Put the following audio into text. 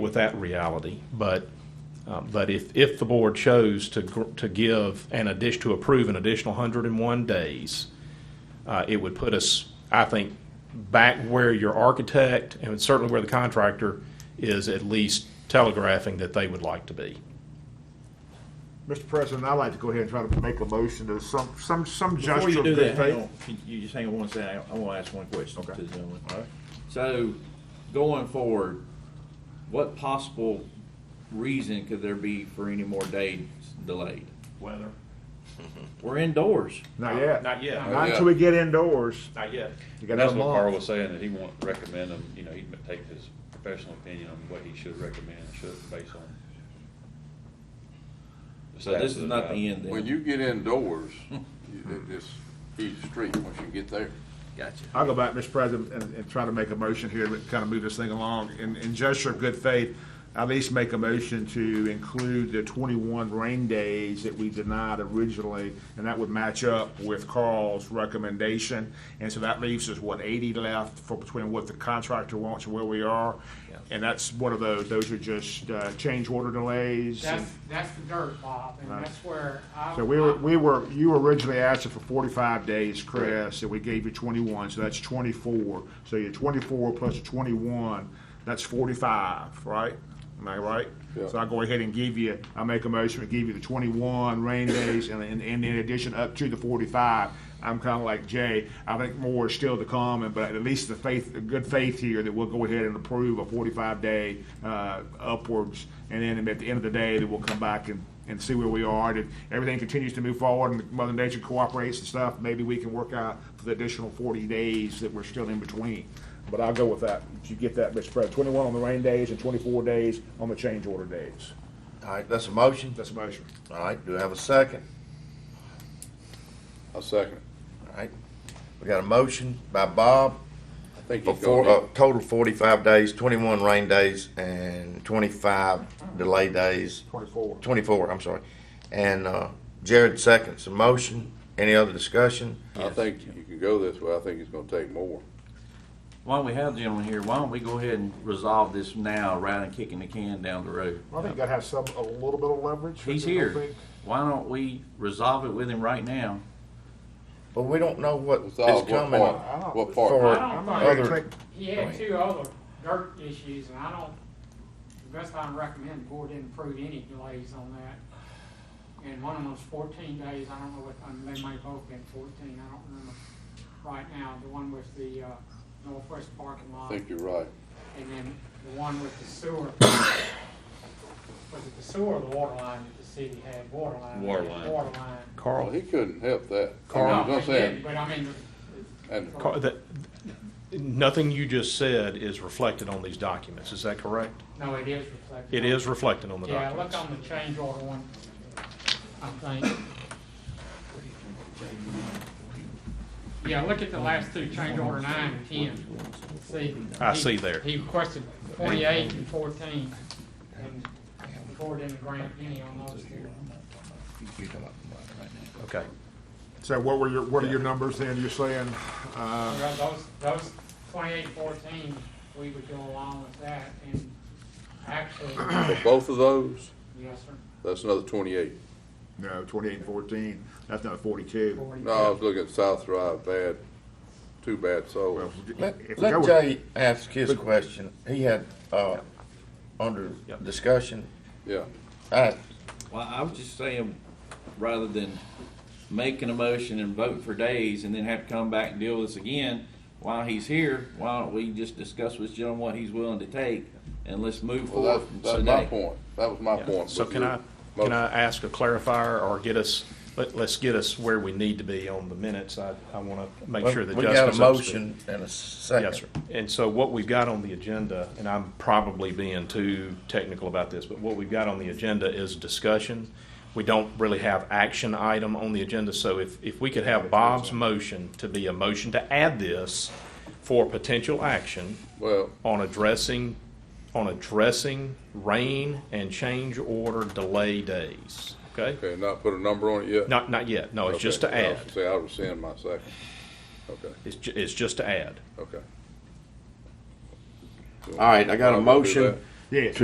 with that reality, but, um, but if, if the board chose to, gr- to give an addition, to approve an additional 101 days, uh, it would put us, I think, back where your architect and certainly where the contractor is at least telegraphing that they would like to be. Mr. President, I'd like to go ahead and try to make a motion to some, some, some Before gesture you of do good that, hang faith. on, Can you just hang on one second, I I wanna ask one question to Okay. the gentleman. All right. So, going forward, what possible reason could there be for any more days delayed? Weather? We're indoors. Not yet. Not yet. Not until we get indoors. Not yet. You And got that's another what Carl month. was saying, that he won't recommend them, you know, he'd take his professional opinion on what he should recommend, and should, based on. the So this stats is of not job. the end When then. you get indoors, you- it's easy street once you get there. Gotcha. I'll go back, Mr. President, and, and try to make a motion here to kind of move this thing along. In, in gesture of good faith, at least make a motion to include the twenty-one rain days that we denied originally, and that would match up with Carl's recommendation. And so that leaves us, what, eighty left for between what the contractor wants and where we are? And that's one of those, those are just, uh, change order delays. and- That's, that's the dirt, Bob, and Right. that's where I. So we were, we were, you were originally asking for forty-five days, Chris, and we gave you twenty-one, so that's twenty-four. So your twenty-four plus your twenty-one, that's forty-five, right? Am I right? Yeah. So I go ahead and give you, I make a motion to give you the twenty-one rain days and, and, and in addition up to the forty-five. I'm kinda like Jay, I think more is still to come, and- but at least the faith, the good faith here that we'll go ahead and approve a forty-five day, uh, upwards. And then at the end of the day, that we'll come back and and see where we are. And if everything continues to move forward and Mother Nature cooperates and stuff, maybe we can work out for the additional forty days that we're still in between. But I'll go with that. If you get that, Mr. President, twenty-one on the rain days and twenty-four days on the change order days. All right, that's a motion. That's a motion. All right, do I have a second? I'll second it. All right, we got a motion by Bob I think for he's four, uh, gonna, total forty-five days, twenty-one rain days and twenty-five delay days, Twenty-four. twenty-four, I'm sorry. And, uh, Jared seconds the motion. Any other discussion? I think you can go this way, I think it's gonna take more. Why don't we have the gentleman here, why don't we go ahead and resolve this now, rather than kicking the can down the road? I think you gotta have some, a little bit of leverage. He's here, why don't we resolve it with him right now? But we don't know what is Resolve what coming part? I don't- What for part? I I'm don't not think- gonna other- take, He had two other dirt issues, and I don't, the best I can recommend, the board didn't approve any delays on that. And one of them was fourteen days, I don't know what, I mean, they may both been fourteen, I don't remember right now, the one with the, uh, northwest parking I lot. think you're right. And then the one with the sewer, was it the sewer or the water line that the city had, water line? Water line. Water line. Well, Carl, he couldn't help that. No, Carl. I'm they didn't, saying, But I mean, and Carl, that, nothing you just said is reflected on these documents, is that correct? no, it is It reflected. is reflected on the Yeah, look documents. on the change order one, I think. Yeah, look at the last two, change order nine and ten. See? I he- see there. He requested twenty-eight and fourteen, and the board didn't grant any on those two. Okay. so what were your, what are your numbers then, you're saying, uh, Yeah, Those, those twenty-eight, fourteen, we would go along with that, and actually, both of those, yes, sir. that's another twenty-eight. no, twenty-eight and fourteen, that's not forty-two. No, I was looking at South Drive, bad, too bad Well, souls. if we Let, go let with- Jay ask his question. He had, uh, under Yeah. discussion. Yeah, All right, Well, I was just saying, rather than making a motion and voting for days and then have to come back and deal with this again, while he's here, why don't we just discuss with Jim what he's willing to take and let's move forward well, that's, that's my today. point. That was my Yeah. point. So with can your I, motion. can I ask a clarifier or get us, let, let's get us where we need to be on the minutes. I, I want to make sure that we got Jessica's a up to motion and a second. Yes, sir. And so what we've got on the agenda, and I'm probably being too technical about this, but what we've got on the agenda is discussion. We don't really have action item on the agenda, so if, if we could have Bob's motion to be a motion to add this for potential action Well, on addressing, on addressing rain and change order delay days, okay? okay, not put a number on it yet? Not, not yet, no, it's just to Okay, I was add. gonna Say, I rescind my second. Okay, It's, ju- it's just to add. okay. All right, I got Well, a we'll do motion. that. Yes.